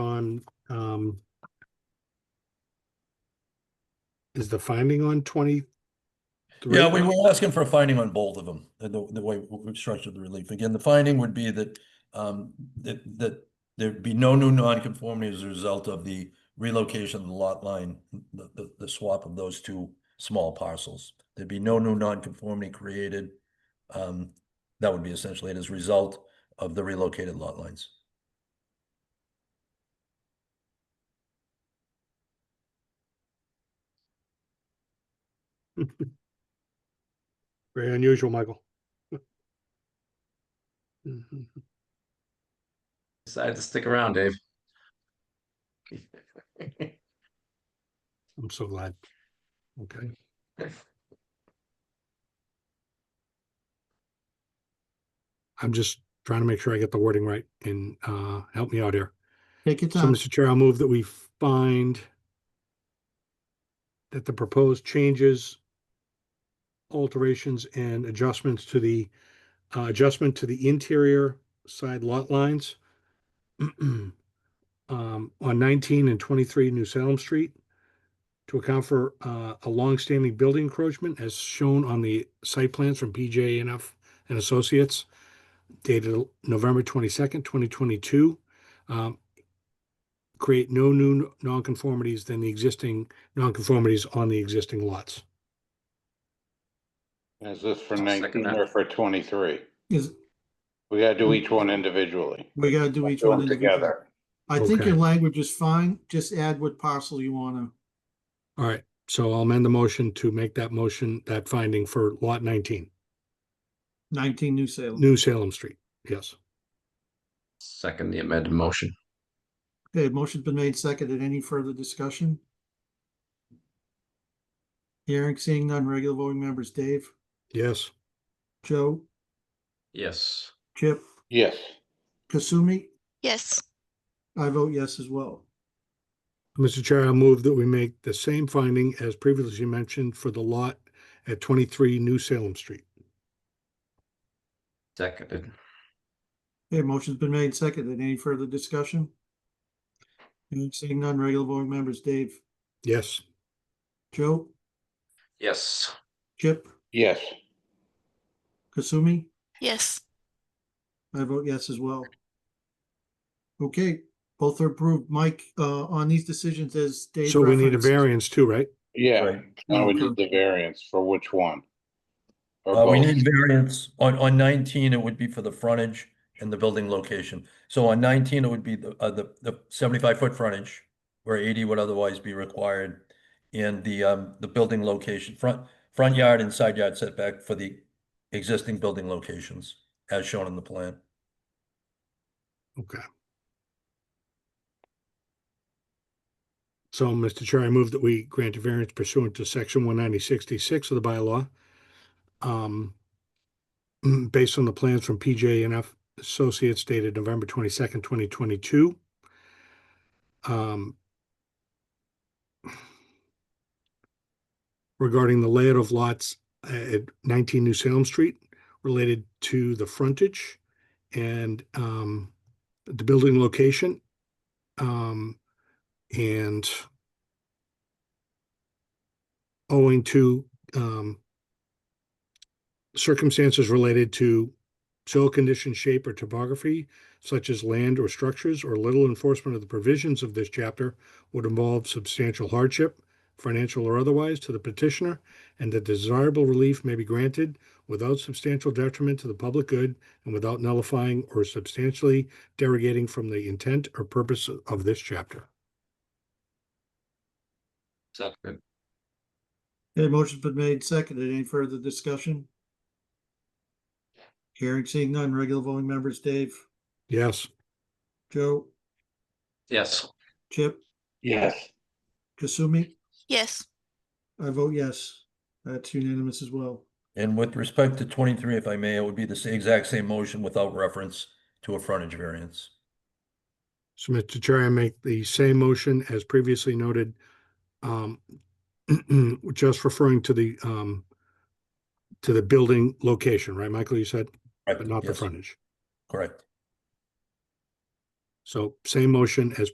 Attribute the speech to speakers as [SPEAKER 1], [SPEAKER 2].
[SPEAKER 1] on, um, is the finding on twenty?
[SPEAKER 2] Yeah, we were asking for a finding on both of them, the, the the way we structured the relief. Again, the finding would be that, um, that, that there'd be no new nonconformity as a result of the relocation of the lot line, the, the, the swap of those two small parcels. There'd be no new nonconformity created. Um, that would be essentially it as a result of the relocated lot lines.
[SPEAKER 1] Very unusual, Michael. Mhm.
[SPEAKER 3] Decided to stick around, Dave.
[SPEAKER 1] I'm so glad. Okay. I'm just trying to make sure I get the wording right and uh, help me out here.
[SPEAKER 4] Take your
[SPEAKER 1] So,
[SPEAKER 4] time.
[SPEAKER 1] Mr. Chair, I'll move that we find that the proposed changes, alterations and adjustments to the uh, adjustment to the interior side lot lines um, on 19 and 23 New Salem Street to account for uh, a longstanding building encroachment as shown on the site plans from PJ and F and Associates dated November 22nd, 2022. Um, create no new nonconformities than the existing nonconformities on the existing lots.
[SPEAKER 5] Is this for
[SPEAKER 3] I'll second
[SPEAKER 5] nineteen
[SPEAKER 3] that.
[SPEAKER 5] or for twenty-three?
[SPEAKER 4] Is, Mm.
[SPEAKER 5] We gotta do each one individually.
[SPEAKER 4] we gotta do
[SPEAKER 5] Don't
[SPEAKER 4] each
[SPEAKER 5] do
[SPEAKER 4] one
[SPEAKER 5] them
[SPEAKER 4] individually.
[SPEAKER 5] Together.
[SPEAKER 4] I think your
[SPEAKER 1] Okay.
[SPEAKER 4] language is fine. Just add what parcel you wanna.
[SPEAKER 1] All right, so I'll amend the motion to make that motion, that finding for lot nineteen,
[SPEAKER 4] Nineteen New Salem.
[SPEAKER 1] New Salem Street. Yes.
[SPEAKER 3] Second the amended motion.
[SPEAKER 4] Okay, motion's been made seconded. Any further discussion? Hearing, seeing none, regular voting members, Dave,
[SPEAKER 1] Yes.
[SPEAKER 4] Joe,
[SPEAKER 3] Yes.
[SPEAKER 4] Chip,
[SPEAKER 5] Yes,
[SPEAKER 4] Kasumi,
[SPEAKER 6] Yes,
[SPEAKER 4] I vote yes as well.
[SPEAKER 1] Mr. Chair, I move that we make the same finding as previously mentioned for the lot at twenty-three New Salem Street.
[SPEAKER 3] Seconded.
[SPEAKER 4] Okay, motion's been made seconded. Any further discussion? Hearing, seeing none, regular voting members, Dave,
[SPEAKER 1] Yes.
[SPEAKER 4] Joe,
[SPEAKER 3] Yes.
[SPEAKER 4] Chip,
[SPEAKER 5] yes,
[SPEAKER 4] Kasumi,
[SPEAKER 6] yes,
[SPEAKER 4] I vote yes as well. Okay, both are approved. Mike, uh, on these decisions as Dave.
[SPEAKER 1] So we need a
[SPEAKER 4] referenced-
[SPEAKER 1] variance too, right?
[SPEAKER 5] yeah.
[SPEAKER 2] Right.
[SPEAKER 5] Now we
[SPEAKER 4] Okay.
[SPEAKER 5] need the variance for which one? Or
[SPEAKER 2] Uh, we
[SPEAKER 5] both?
[SPEAKER 2] need variance, on, on nineteen, it would be for the frontage and the building location. So on nineteen, it would be the, uh, the, the seventy-five foot frontage, where eighty would otherwise be required. And the, um, the building location, front, front yard and side yard setback for the existing building locations, as shown in the plan.
[SPEAKER 1] Okay. So, Mr. Chair, I move that we grant a variance pursuant to section one ninety sixty-six of the bylaw. Um, mm, based on the plans from PJ and F Associates dated November twenty-second, twenty twenty-two. Um, regarding the layout of lots uh, at nineteen New Salem Street related to the frontage and, um, the building location. Um, and owing to, um, circumstances related to soil condition, shape, or topography, such as land or structures, or little enforcement of the provisions of this chapter would involve substantial hardship, financial or otherwise, to the petitioner, and that desirable relief may be granted without substantial detriment to the public good and without nullifying or substantially derogating from the intent or purpose of this chapter.
[SPEAKER 3] Seconded.
[SPEAKER 4] Okay, motion's been made seconded. Any further discussion? Hearing, seeing none, regular voting members, Dave,
[SPEAKER 1] Yes,
[SPEAKER 4] Joe,
[SPEAKER 3] Yes.
[SPEAKER 4] Chip,
[SPEAKER 5] Yes,
[SPEAKER 4] Kasumi,
[SPEAKER 6] yes,
[SPEAKER 4] I vote yes. That's unanimous as well.
[SPEAKER 2] And with respect to twenty-three, if I may, it would be the sa- exact same motion without reference to a frontage variance.
[SPEAKER 1] so Mr. Chair, I make the same motion as previously noted. Um, just referring to the, um, to the building location, right, Michael, you said,
[SPEAKER 2] Right,
[SPEAKER 1] but not the
[SPEAKER 2] yes,
[SPEAKER 1] frontage.
[SPEAKER 2] Correct.
[SPEAKER 1] So same motion as